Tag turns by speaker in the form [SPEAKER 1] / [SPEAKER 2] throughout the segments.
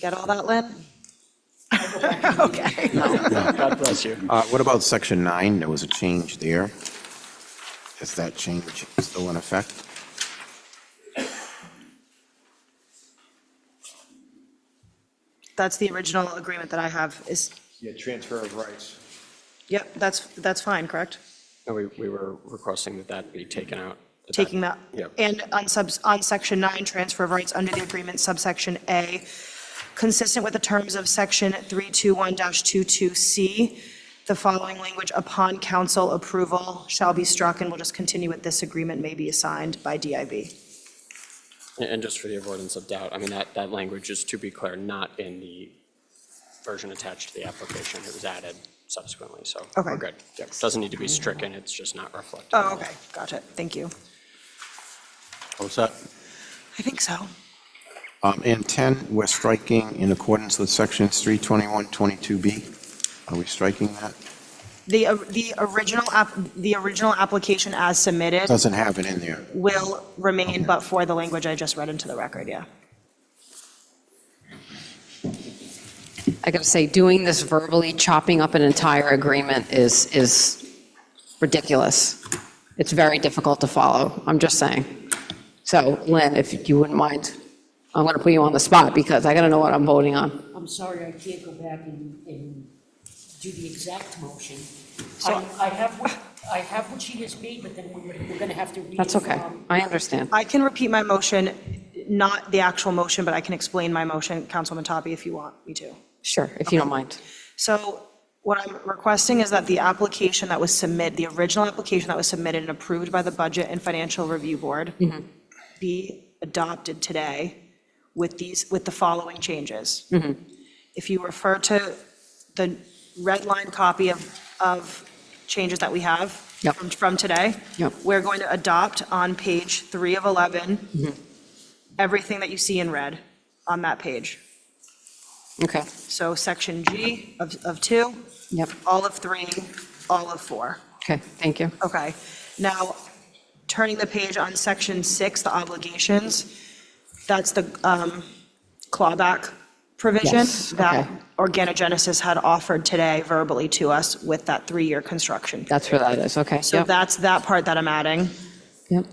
[SPEAKER 1] Get all that, Lynn? Okay.
[SPEAKER 2] God bless you.
[SPEAKER 3] Uh, What about section nine? There was a change there. Is that change still in effect?
[SPEAKER 1] That's the original agreement that I have is,
[SPEAKER 2] Yeah, transfer of rights.
[SPEAKER 1] yep, that's, that's fine, correct?
[SPEAKER 4] No, we, we were requesting that that be taken out. that
[SPEAKER 1] Taking that.
[SPEAKER 4] Yeah.
[SPEAKER 1] And on subs, on section nine, transfer of rights under the agreement subsection A, consistent with the terms of section 321-22C, the following language, upon council approval, shall be struck, and we'll just continue with this agreement may be assigned by DIB.
[SPEAKER 4] And and just for the avoidance of doubt, I mean, that, that language is, to be clear, not in the version attached to the application. It was added subsequently, so we're
[SPEAKER 1] Okay.
[SPEAKER 4] good. Yeah, Doesn't need to be stricken, it's just not reflected.
[SPEAKER 1] Oh, okay, got it, thank you.
[SPEAKER 3] All set.
[SPEAKER 1] I think so.
[SPEAKER 3] Um, And 10, we're striking in accordance with sections 321, 22B. Are we striking that?
[SPEAKER 1] The, o- the original, app the original application as submitted
[SPEAKER 3] Doesn't have it in there.
[SPEAKER 1] will remain but for the language I just read into the record, yeah.
[SPEAKER 5] I gotta say, doing this verbally, chopping up an entire agreement is, is ridiculous. It's very difficult to follow, I'm just saying. So Lynn, if you wouldn't mind, I'm gonna put you on the spot because I gotta know what I'm voting on.
[SPEAKER 6] I'm sorry, I can't go back and, and do the exact motion. I, I have what, I have what she has made, but then we're, we're gonna have to read.
[SPEAKER 5] That's
[SPEAKER 6] it
[SPEAKER 5] okay,
[SPEAKER 6] from-
[SPEAKER 5] I understand.
[SPEAKER 1] I can repeat my motion, not the actual motion, but I can explain my motion, Councilman Toppy, if you want me to.
[SPEAKER 5] Sure, if you don't mind.
[SPEAKER 1] So what I'm requesting is that the application that was submit, the original application that was submitted and approved by the Budget and Financial Review Board
[SPEAKER 5] Mm-hmm.
[SPEAKER 1] be adopted today with these, with the following changes.
[SPEAKER 5] Mm-hmm.
[SPEAKER 1] If you refer to the red line copy of, of changes that we have
[SPEAKER 5] Yep.
[SPEAKER 1] from, from today,
[SPEAKER 5] Yep.
[SPEAKER 1] we're going to adopt on page three of
[SPEAKER 5] Mm-hmm.
[SPEAKER 1] 11, everything that you see in red on that page.
[SPEAKER 5] Okay,
[SPEAKER 1] So section G of, of two,
[SPEAKER 5] yep,
[SPEAKER 1] all of three, all of four.
[SPEAKER 5] okay, thank you.
[SPEAKER 1] Okay. Now, turning the page on section six, the obligations, that's the um, clawback provision
[SPEAKER 5] Yes,
[SPEAKER 1] that
[SPEAKER 5] okay.
[SPEAKER 1] Organogenesis had offered today verbally to us with that three-year construction.
[SPEAKER 5] That's where that is, okay,
[SPEAKER 1] So
[SPEAKER 5] yep,
[SPEAKER 1] that's that part that I'm adding.
[SPEAKER 5] yep,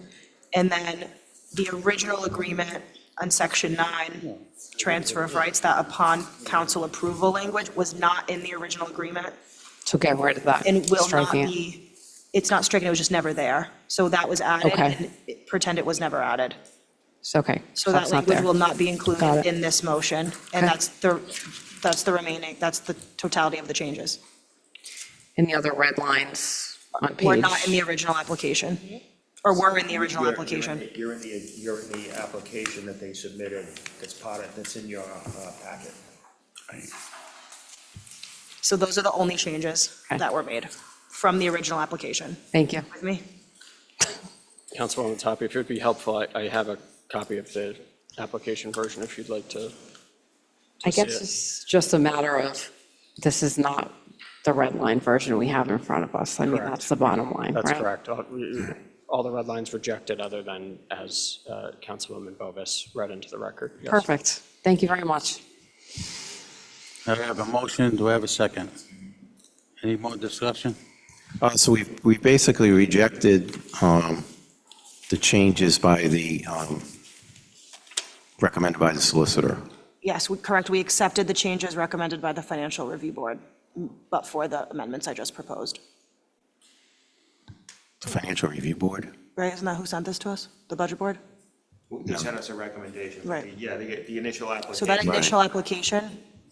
[SPEAKER 1] And then the original agreement on section nine, transfer of rights, that upon council approval language was not in the original agreement.
[SPEAKER 5] so get rid of that.
[SPEAKER 1] and will not
[SPEAKER 5] striking it.
[SPEAKER 1] be, it's not stricken, it was just never there. So that was added,
[SPEAKER 5] Okay.
[SPEAKER 1] and it- pretend it was never added.
[SPEAKER 5] It's okay,
[SPEAKER 1] So
[SPEAKER 5] so
[SPEAKER 1] that
[SPEAKER 5] that's not
[SPEAKER 1] language
[SPEAKER 5] there.
[SPEAKER 1] will not be
[SPEAKER 5] Got
[SPEAKER 1] included
[SPEAKER 5] it.
[SPEAKER 1] in this motion,
[SPEAKER 5] Okay.
[SPEAKER 1] and that's the, that's the remaining, that's the totality of the changes.
[SPEAKER 5] And the other red lines on page.
[SPEAKER 1] Were not in the original application, or were in the original
[SPEAKER 2] You're-
[SPEAKER 1] application.
[SPEAKER 2] You're in the, you're in the application that they submitted, that's part of, that's in your uh, packet.
[SPEAKER 1] So those are the only changes
[SPEAKER 5] Okay.
[SPEAKER 1] that were made from the original application.
[SPEAKER 5] Thank you.
[SPEAKER 1] With me?
[SPEAKER 4] Councilwoman Toppy, if it would be helpful, I, I have a copy of the application version if you'd like to.
[SPEAKER 5] I
[SPEAKER 4] see
[SPEAKER 5] guess
[SPEAKER 4] it.
[SPEAKER 5] it's just a matter of, this is not the red line version we have in front of us. I mean,
[SPEAKER 4] Correct.
[SPEAKER 5] that's the bottom line, right?
[SPEAKER 4] That's correct. All all the red lines rejected other than as uh, Councilwoman Bovis read into the record. Yes.
[SPEAKER 5] Perfect. Thank you very much.
[SPEAKER 7] I have a motion, do I have a second? Any more discussion?
[SPEAKER 3] Uh, So we we basically rejected um, the changes by the, um, recommended by the solicitor.
[SPEAKER 1] Yes, we- correct, we accepted the changes recommended by the Financial Review Board, but for the amendments I just proposed.
[SPEAKER 3] The Financial Review Board?
[SPEAKER 1] Right, isn't that who sent this to us? The Budget Board?
[SPEAKER 2] They sent us a recommendation. but
[SPEAKER 1] Right.
[SPEAKER 2] the- Yeah, the, the initial
[SPEAKER 1] So that
[SPEAKER 2] application.
[SPEAKER 1] initial application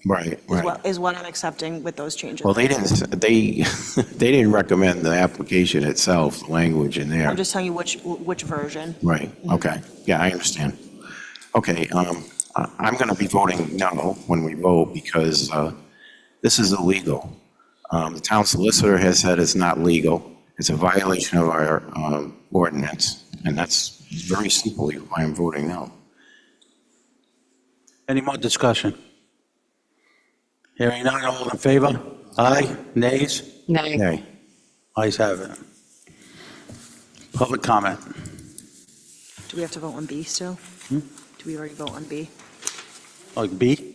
[SPEAKER 3] Right,
[SPEAKER 1] is
[SPEAKER 3] right.
[SPEAKER 1] what, is what I'm accepting with those changes.
[SPEAKER 3] Well, they didn't, they, they didn't recommend the application itself, the language in there.
[SPEAKER 1] I'm just telling you which, which version.
[SPEAKER 3] Right, okay. Yeah, I understand. Okay, um, I- I'm going to be voting no when we vote because uh, this is illegal. Um, The town solicitor has said it's not legal. It's a violation of our um, ordinance, and that's very simply why I'm voting no.
[SPEAKER 7] Any more discussion? Hearing none, all in favor? Aye, nays?
[SPEAKER 5] Nay.
[SPEAKER 3] Okay.
[SPEAKER 7] Ayes have it. Public comment.
[SPEAKER 3] Hmm?
[SPEAKER 1] Do we have to vote on B still? Do we already vote on B?
[SPEAKER 7] Like B?